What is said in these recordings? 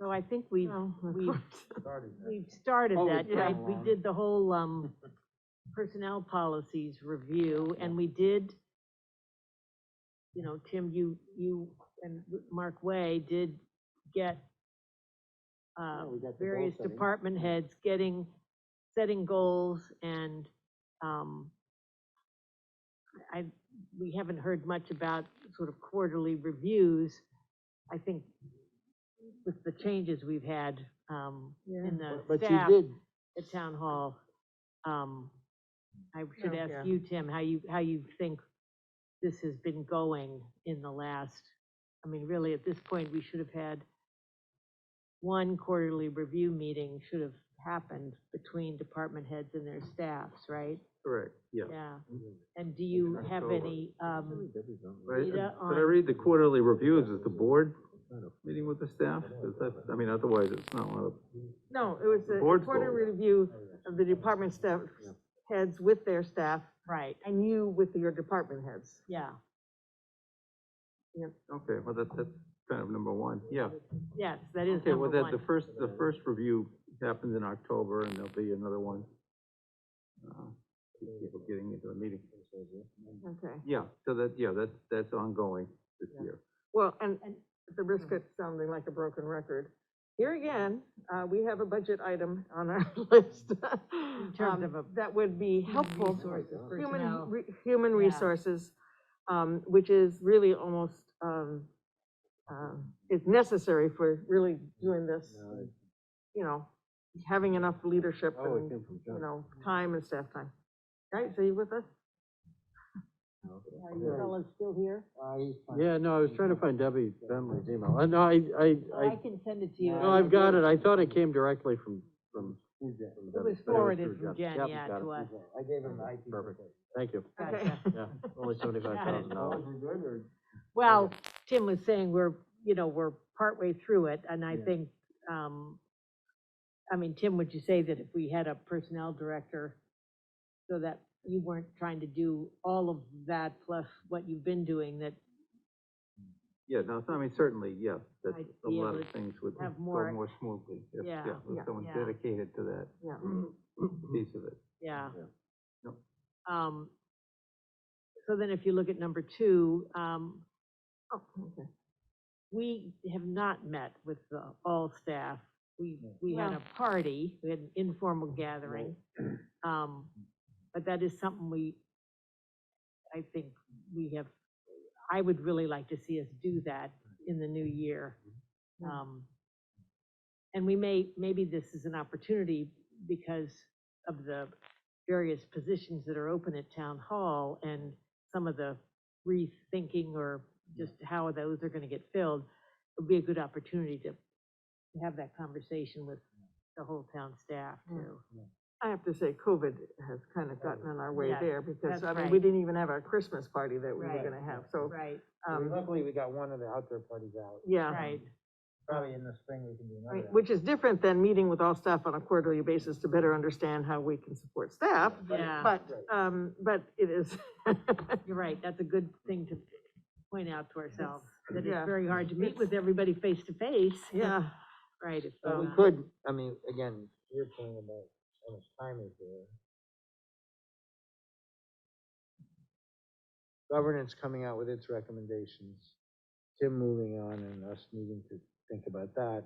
So I think we've, Oh, of we've, course. started that. we've started Oh, that, we've right? gone We along. did the whole, um, personnel policies review, and we did, you know, Tim, you, you and Mark Way did get, uh, Yeah, we got the goal various setting. department heads getting, setting goals and, um, I, we haven't heard much about sort of quarterly reviews. I think with the changes we've had, um, in But- the But you staff did, at town hall. Um, I should Oh, ask yeah. you, Tim, how you, how you think this has been going in the last, I mean, really, at this point, we should have had one quarterly review meeting should have happened between department heads and their staffs, right? Correct, yeah. Yeah, and do you In have October. any, Mm-hmm. um, But I- Rita, but I on- read the quarterly reviews, is the board meeting with the staff? Is that, I mean, otherwise, it's not one of, No, it was the Board's important goal. review of the department staff, heads with their staff, right, and you with your department heads. yeah, okay, well, that, that's kind of number one, yeah. yes, that is Okay, well, number that, the one. first, the first review happens in October, and there'll be another one. uh, People getting into the meeting. Okay, Yeah, so that, yeah, that's, that's ongoing this Yeah. year. well, and, and at the risk of sounding like a broken record, here again, uh, we have a budget item on our list. terms um, of a That would be helpful. Resources, personnel. Human, re- human Yeah. resources, um, which is really almost, um, uh, is necessary for really doing this, you know, having enough leadership Oh, it and, came from you John. know, time and staff time. Right, so you with us? Are you fellas still here? Yeah, no, I was trying to find Debbie Bentley's email. Uh, No, I, I, I I, can send it to you. No, no, I've got it. I thought it came directly from, from. It was forwarded from Jen, yeah, to us. I gave him IT. Perfect. Thank you. Okay. Gotcha. Yeah, only seventy-five thousand dollars. Well, Tim was saying we're, you know, we're partway through it, and I Yeah. think, um, I mean, Tim, would you say that if we had a personnel director, so that you weren't trying to do all of that plus what you've been doing, that Yeah, no, so, I mean, certainly, yeah, that's, I'd a be lot able of to things would go have more- more smoothly. if- Yeah, with yeah, Someone yeah. dedicated to that Yeah. piece of it. Yeah. Yeah. Yep. Um, so then if you look at number two, um, Oh, okay. we have not met with the all staff. We, No. we had No. a party, we had an informal gathering. Um, but that is something we, I think we have, I would really like to see us do that in the new year. Mhm. Um, and we may, maybe this is an opportunity because of the various positions that are open at town hall and some of the rethinking or just how those are gonna get filled, it'd be a good opportunity to to have that conversation with the whole town staff too. I have to say, COVID has kind of gotten in our way Yeah, there, because, Oh, that's I mean, we right. didn't even have our Christmas party that we were Right. gonna have, so, Right, um, Luckily, we got one of the outdoor parties out. yeah. right, Probably in the spring, we can do I mean, another. Which is different than meeting with all staff on a quarterly basis to better understand how we can support staff, yeah. but, um, but it is, You're right, that's a good thing to point out to ourselves, that it's Yeah. very hard to meet with everybody face to face. yeah. Right. it's uh, But we not- could, I mean, again, your point about how much time is there. Governance coming out with its recommendations, Tim moving on and us needing to think about that.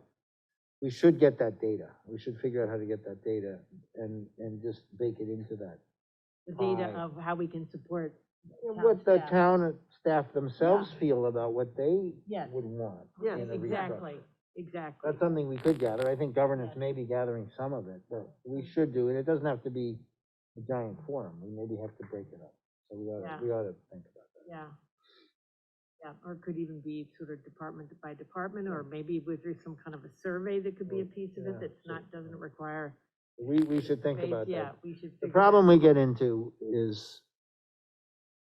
We should get that data. We should figure out how to get that data and, and just bake it into that. The data Aye. of how we can support, And Town What the staff. town staff themselves feel about what they Yes. would want. Yes, in a exactly, restructure. exactly. That's something we could gather. I think governance Yes. may be gathering some of it, but we should do, and it doesn't have to be a giant forum. We maybe have to break it up. So we Yeah. ought we ought to think about that. Yeah. Yeah, or it could even be sort of department by department, or maybe with there's some kind of a survey that could be a Well, piece of it yeah, that's sure. not, doesn't require. We, we should think space. about Yeah, that. we should. The figure that problem we get into is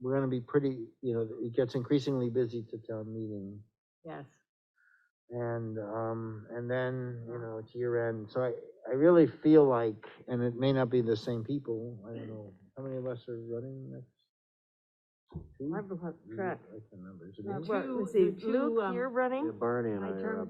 we're gonna be pretty, you know, it gets increasingly busy to town meeting. Yes, And, um, and then, you know, it's year end, so I, I really feel like, and it may not be the same people, I don't know, how many of us are running next? Two? I've lost Ooh, track. I can remember, is it Uh, me? well, Well, let's the see, two, Luke, um, you're running? Barney and my I term